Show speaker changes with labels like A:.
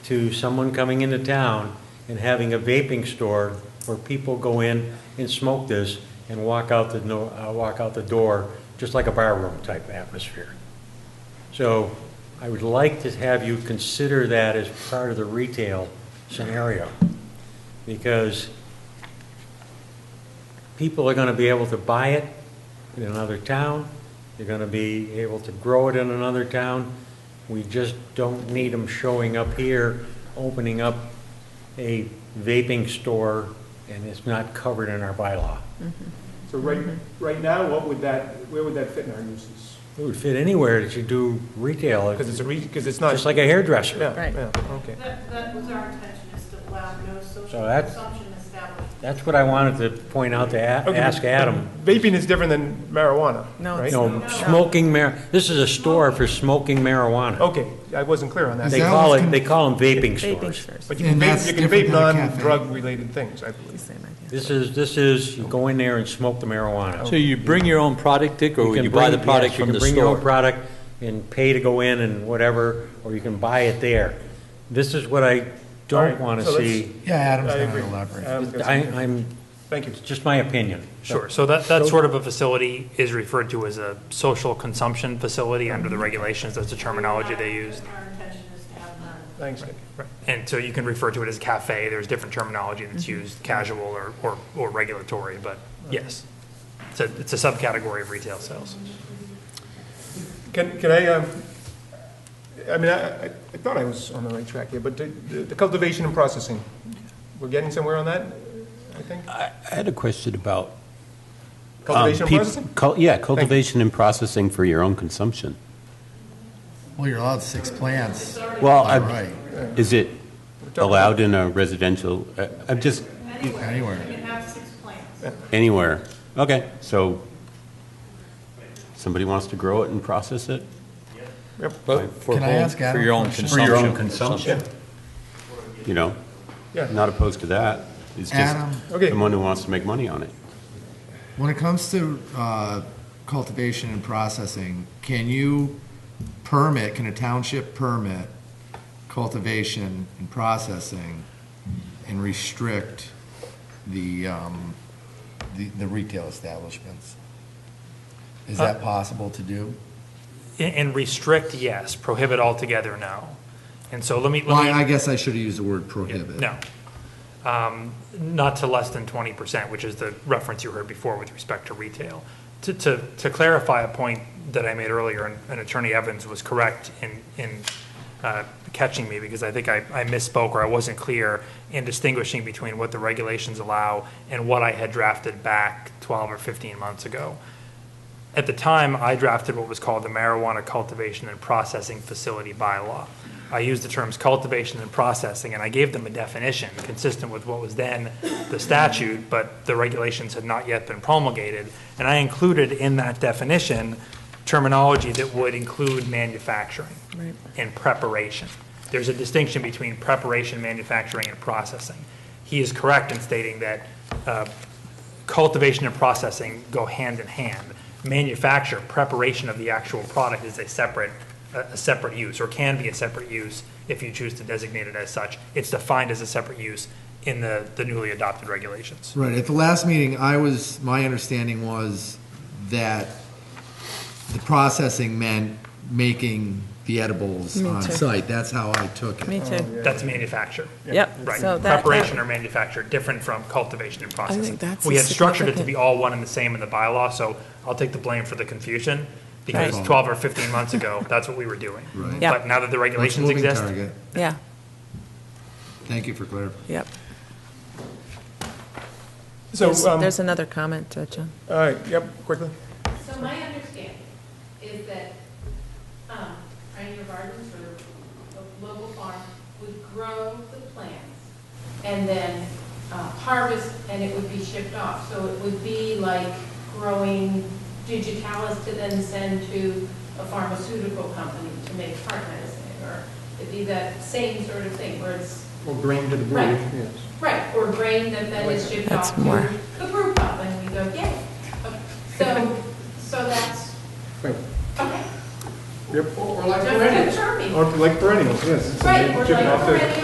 A: to someone coming into town and having a vaping store where people go in and smoke this and walk out the, no- uh, walk out the door, just like a barroom type atmosphere. So I would like to have you consider that as part of the retail scenario, because people are going to be able to buy it in another town, they're going to be able to grow it in another town. We just don't need them showing up here, opening up a vaping store, and it's not covered in our bylaw.
B: So right, right now, what would that, where would that fit in our uses?
A: It would fit anywhere that you do retail,
B: Because it's a, because it's not.
A: just like a hairdresser.
B: Yeah,
C: Right.
B: yeah, okay.
D: That, that was our intention, is to allow no social
A: So that's-
D: consumption established.
A: That's what I wanted to point out to A-
B: Okay.
A: ask Adam.
B: Vaping is different than marijuana,
C: No,
B: right?
C: it's
A: You know, smoking mar, this is a store for smoking marijuana.
B: Okay, I wasn't clear on
A: They
B: that.
E: that
A: call
E: what's
A: it,
E: con-
A: they call them vaping
C: Vaping
A: stores.
C: stores,
B: But you can
E: And
B: vape,
E: that's
B: you can vape
E: different than a cafe.
B: non-drug-related things, I
C: the
B: believe.
C: same idea.
A: This is, this is, you go in there and smoke the marijuana.
F: So you bring your own product, Dick, or you buy the
A: bring-
F: product
A: yes, Oh. you
F: from
A: can
F: the
A: bring your own
F: store?
A: product and pay to go in and whatever, or you can buy it there. This is what I
B: All
A: don't
B: right,
A: want to
B: so let's-
A: see.
E: Yeah, Adam's
B: I
E: going
B: agree.
E: to elaborate.
B: Adam's got
A: I,
B: some-
A: I'm,
B: Thank you.
A: it's just my opinion.
G: Sure, so that, that sort of a facility is referred to as a social consumption facility under the regulations, that's the terminology they use.
D: Our intention is to have none.
B: Thanks, Nick.
G: And so you can refer to it as cafe, there's different terminology that's
E: Mm-hmm.
G: used, casual or, or, or regulatory, but yes. It's a, it's a subcategory of retail sales.
B: Can, can I, um, I mean, I, I- I thought I was on the right track here, but the- the cultivation and processing, we're getting somewhere on that, I think?
A: Um,
F: I I had a question about. um,
B: Cultivation and
F: peop-
B: processing?
F: cul- Yeah, cultivation and processing for your own consumption.
E: Well, you're allowed six plants.
F: Well,
E: By
F: I-
E: right,
F: is it
B: talking
F: allowed in a residential, I- I'm just,
E: anywhere.
D: You can have six plants.
F: anywhere? Okay, so somebody wants to grow it and process it?
H: But for
E: Can I
H: home-
E: ask Adam
H: For your own
E: a question?
H: consumption.
E: For your own
F: You know,
B: Yeah.
F: not opposed to that. It's just
E: Adam.
B: Okay.
F: someone who wants to make money on it.
E: When it comes to uh, cultivation and processing, can you permit, can a township permit cultivation and processing and restrict the, um, the the retail establishments? Is
G: Uh,
E: that possible to do?
G: And, and restrict, yes, prohibit altogether, no. And so let me,
E: Well,
G: let me.
E: I I guess I should have used the word prohibit.
G: No. Um, Not to less than 20%, which is the reference you heard before with respect to retail. To, to, to clarify a point that I made earlier, and- and Attorney Evans was correct in, in uh, catching me, because I think I, I misspoke or I wasn't clear in distinguishing between what the regulations allow and what I had drafted back 12 or 15 months ago. At the time, I drafted what was called the marijuana cultivation and processing facility bylaw. I used the terms cultivation and processing, and I gave them a definition consistent with what was then the statute, but the regulations had not yet been promulgated. And I included in that definition terminology that would include manufacturing
C: Right.
G: and preparation. There's a distinction between preparation, manufacturing, and processing. He is correct in stating that uh, cultivation and processing go hand in hand. Manufacture, preparation of the actual product is a separate, a a separate use, or can be a separate use if you choose to designate it as such. It's defined as a separate use in the, the newly adopted regulations.
E: Right, at the last meeting, I was, my understanding was that the processing meant making the edibles
C: Me
E: on
C: too.
E: site. That's how I took
C: Me
E: it.
C: too.
G: That's manufacture.
C: Yep.
G: Right,
C: So that-
G: preparation or manufacture, different from cultivation and processing.
C: that's
G: We
C: a
G: had structured it to
C: significant-
G: be all one and the same in the bylaw, so I'll take the blame for the confusion, because
E: Right.
G: 12 or 15 months ago, that's what we were doing.
E: Right.
C: Yeah.
G: But now that the
E: Let's
G: regulations
E: move in
G: exist,
E: Target.
C: Yeah,
E: Thank you for clarifying.
C: yep.
B: So,
C: There's-
B: um,
C: There's another comment, uh, John.
B: all right, yep, quickly.
D: So my understanding is that, um, Pioneer Gardens or a local farm would grow the plants and then uh, harvest, and it would be shipped off. So it would be like growing digitalis to then send to a pharmaceutical company to make heart medicine, or it'd be that same sort of thing, where it's
B: Or grain to the
D: brew, Right. Right, or grain that then is shipped
C: That's
D: off to
C: more.
D: the brew pub, and we go, yay. So, so that's,
B: Right.
D: okay,
B: Yep.
D: just confirming.
B: Or like perennials, yes.
D: Right, we're like,
B: Chipping off the-
D: already